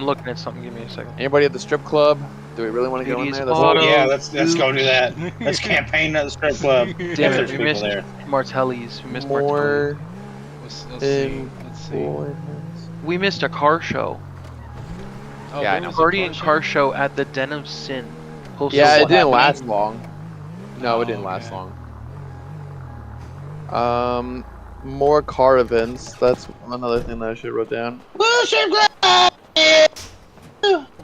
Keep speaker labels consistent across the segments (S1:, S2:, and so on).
S1: I'm looking at something. Give me a second.
S2: Anybody at the strip club? Do we really want to go in
S1: Duties
S2: there?
S1: on.
S2: That's
S3: Oh, yeah, let's let's go do that. Let's campaign at the strip club. if
S1: Damn
S3: there's
S1: it, we
S3: people
S1: missed
S3: there.
S1: Martelli's. We missed Martelli's.
S2: more.
S4: Let's, let's see.
S2: Thing.
S3: Um,
S4: Let's see.
S2: Oh,
S1: We missed a car show.
S4: Oh,
S2: Yeah, I
S4: there
S2: know.
S4: was a
S1: Party and car
S4: show?
S1: show at the Den of Sin. Hosted
S2: Yeah,
S1: by-
S2: it didn't
S3: happening?
S2: last long. No,
S4: Oh,
S2: it didn't last
S4: okay.
S2: long. Um, more car events. That's another thing that I should have wrote down.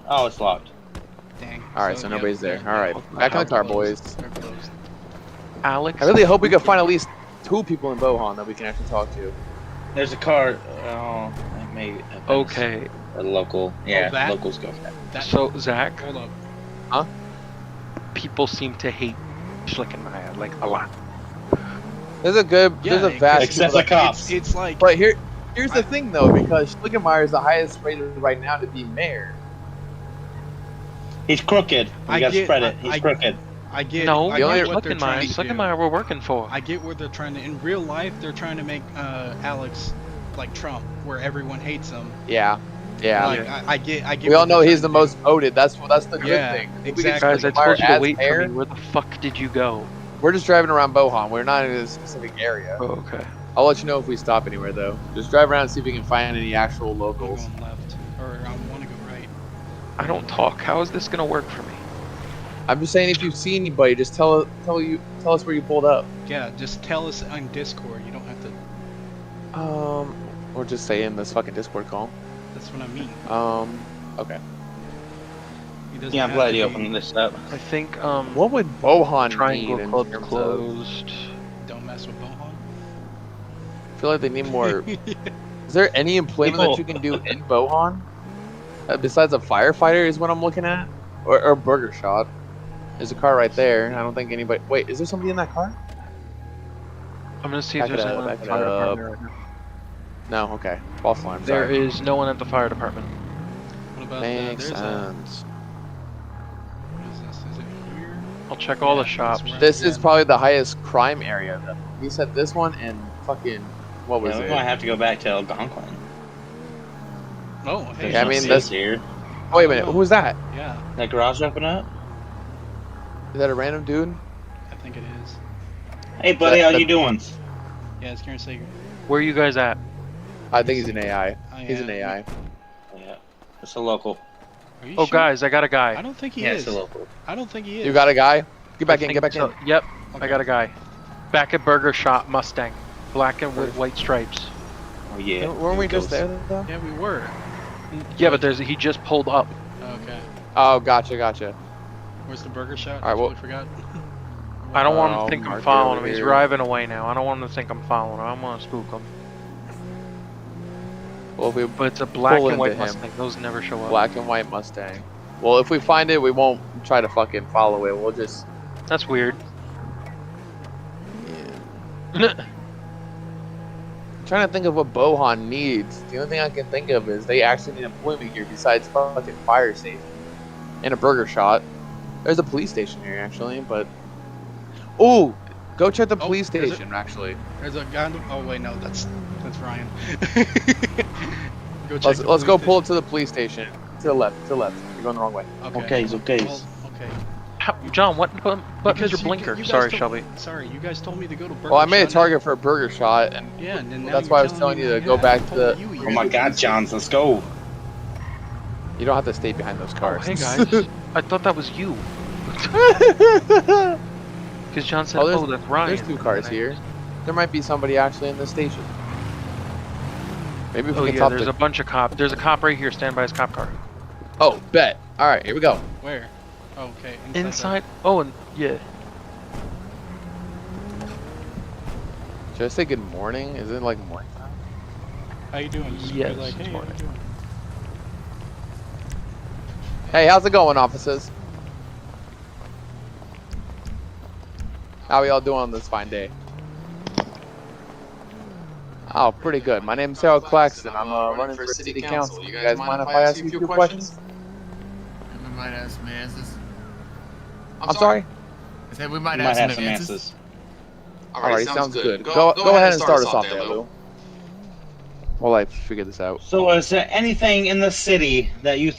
S3: Oh, it's locked.
S4: Dang.
S2: All right, so,
S4: yeah,
S2: nobody's there.
S4: they're-
S2: All right,
S4: they're
S2: back on the car,
S4: closed.
S2: boys.
S4: They're closed.
S1: Alex.
S2: I really hope we can find at least two people in Bohan that we can actually talk to.
S3: There's a car. Oh, that may. have been
S1: Okay,
S3: A local. Yeah,
S4: that?
S3: locals go. for that.
S4: That,
S1: so Zach,
S4: hold up.
S1: people seem to hate Schlick and I like a lot.
S2: There's a good.
S4: Yeah,
S2: there's a
S4: it-
S2: vast. people
S3: Except
S2: that-
S3: the cops.
S4: It's like
S2: But here, here's the thing though, because Schlickenmeyer is the highest rated right now to be mayor.
S3: He's crooked.
S4: I
S3: We got to
S4: get-
S3: spread
S4: I-
S3: it. He's
S4: I-
S3: crooked.
S4: I get.
S1: no,
S4: I
S2: the only-
S4: get what
S1: Schlick
S4: they're
S1: and I,
S4: trying to
S1: Schlick and
S4: do.
S1: I, we're working for.
S4: I get where they're trying to. In real life, they're trying to make uh, Alex like Trump, where everyone hates him.
S2: Yeah, yeah.
S4: Like, I, I get. I
S2: we
S4: get. what
S2: all know
S4: they're
S2: he's the
S4: trying to
S2: most voted. That's what. That's the good
S4: Yeah,
S2: thing. If we
S4: exactly.
S2: get
S1: Guys, I
S2: Schlickenmeyer
S1: told you to
S2: as
S1: wait
S2: mayor,
S1: for me. Where the fuck did you go?
S2: We're just driving around Bohan. We're not in a specific area.
S1: Oh, okay.
S2: I'll let you know if we stop anywhere though. Just drive around and see if we can find any actual
S4: do. I'm
S2: locals.
S4: going left, or I want to go right.
S1: I don't talk. How is this gonna work for me?
S2: I'm just saying, if you see anybody, just tell tell you tell us where you pulled up.
S4: Yeah, just tell us on Discord. You don't have to.
S2: Um, or just say in this fucking Discord call.
S4: That's what I mean.
S2: Um, okay.
S4: He doesn't
S3: Yeah, I'm
S4: have
S3: glad
S4: to
S3: you
S4: be-
S3: opened this up.
S1: I think um
S2: What would Bohan need
S1: Triangle
S2: in
S1: Club
S2: terms of-
S1: closed.
S4: Don't mess with Bohan.
S2: I feel like they need more Is there any employment that
S3: People-
S2: you can do in Bohan uh, besides a firefighter? Is what I'm looking at, or, or burger shop. There's a car right there. I don't think anybody. Wait, is there somebody in that car?
S1: I'm gonna see
S2: Back
S1: if
S2: it
S1: there's
S2: up,
S1: anyone at
S2: back
S1: the
S2: it
S1: fire
S2: up.
S1: department. right now.
S2: No. Okay. False alarm.
S1: There
S2: Sorry.
S1: is no one at the fire department.
S4: What about
S2: Makes
S4: the, uh, there's a,
S2: sense.
S4: what is this? Is it here?
S1: I'll check all the
S4: Yeah,
S1: shops.
S4: that's
S2: This is
S4: Yeah.
S2: probably the highest crime area. Though. He said this one and fucking what was
S3: Yeah, we might
S2: it?
S3: have to go back to Algonquin.
S4: Oh, hey.
S3: There's
S2: Yeah, I
S3: no
S2: mean,
S3: seats
S2: that's-
S3: here.
S2: Oh, wait a minute. Who was that?
S4: Yeah,
S3: That garage open up.
S2: Is that a random dude?
S4: I think it is.
S3: Hey, buddy,
S2: That-
S3: how you
S2: that-
S3: doing?
S4: Yeah, it's Karen Sager.
S1: Where are you guys at?
S2: I think he's an AI.
S4: I
S2: He's
S4: am-
S2: an AI.
S3: Yeah, it's a local.
S4: Are you
S1: Oh,
S4: sure?
S1: guys, I got a guy.
S4: I don't think he
S3: yeah,
S4: is.
S3: it's a local.
S4: I don't think he is.
S2: You got a guy? Get back
S1: I
S2: in.
S1: think
S2: Get back
S1: so.
S2: in.
S1: Yep, I
S4: Okay.
S1: got a guy. Back at Burger Shop Mustang, black and with white stripes.
S3: Oh yeah.
S2: Weren't we just there though?
S4: Yeah, we were.
S1: Yeah, but there's he just pulled up.
S4: Okay.
S2: Oh, gotcha, gotcha.
S4: Where's the burger shot?
S2: All right,
S4: I
S2: well-
S4: totally forgot.
S1: I don't want him
S2: Oh,
S1: to think I'm
S2: Mark,
S1: following
S2: over
S1: him. He's
S2: here.
S1: driving away now. I don't want him to think I'm following him. I don't want to spook him.
S2: Well, if we
S1: But it's a black
S2: Pull
S1: and white
S2: into him.
S1: Mustang. Those never show up.
S2: Black and white Mustang. Well, if we find it, we won't try to fucking follow it. We'll just.
S1: That's weird.
S2: I'm trying to think of what Bohan needs. The only thing I can think of is they actually need employment here besides fucking fire safety and a burger shot. There's a police station here actually, but ooh, go check the
S4: Oh,
S2: police
S4: there's a-
S2: station actually.
S4: There's a guy. Oh wait, no, that's that's Ryan. go check
S2: Let's
S4: the
S2: let's go
S4: police
S2: pull up to the police station. To the left, to the left. You're going the wrong way.
S4: station.
S3: Okay, it's okay.
S4: Well, okay.
S1: How- John, what button- button's
S4: Because
S1: your
S4: you-
S1: blinker?
S4: you guys
S1: Sorry,
S4: told-
S1: Shelby.
S4: Sorry, you guys told me to go to burger.
S2: Well, I made a
S4: shot.
S2: target for a burger shot, and
S4: Yeah, and then now
S2: That's
S4: you're
S2: why I was telling
S4: telling
S2: you to
S4: me
S2: go
S4: yeah,
S2: back
S4: I
S2: to
S4: told
S2: the-
S4: you
S3: Oh my
S4: years
S3: God,
S4: ago.
S3: Johns, let's go.
S2: you don't have to stay behind those
S1: Oh,
S2: cars.
S1: hey guys, I thought that was you. Because John said, "Oh,
S2: Oh, there's-
S1: that's Ryan."
S2: There's two cars
S1: And I-
S2: here. There might be somebody actually in the station. Maybe if
S1: Oh
S2: we can
S1: yeah,
S2: top
S1: there's
S2: the.
S1: a bunch of cop. There's a cop right here. Stand by his cop car.
S2: Oh, bet. All right, here we go.
S4: Where? Oh, okay. the-
S1: Inside. Oh, and yeah.
S2: Should I say good morning? Is it like morning? time?
S4: How you doing? Just be
S1: Yes,
S4: like,
S1: it's
S4: hey, how you
S1: morning.
S4: doing?
S2: Hey, how's it going, officers? How we all doing on this fine day? Oh, pretty good. My name's Sarah Claxton. I'm uh, running for city council. You guys mind if I ask you a few questions?
S5: And we might have some answers.
S2: I'm sorry.
S5: I said we
S3: We
S5: might,
S3: might have some answers.
S2: Alright, sounds good. Go, go ahead and start us off there, Lou. while I figure this out.
S3: So, is there anything in the city that you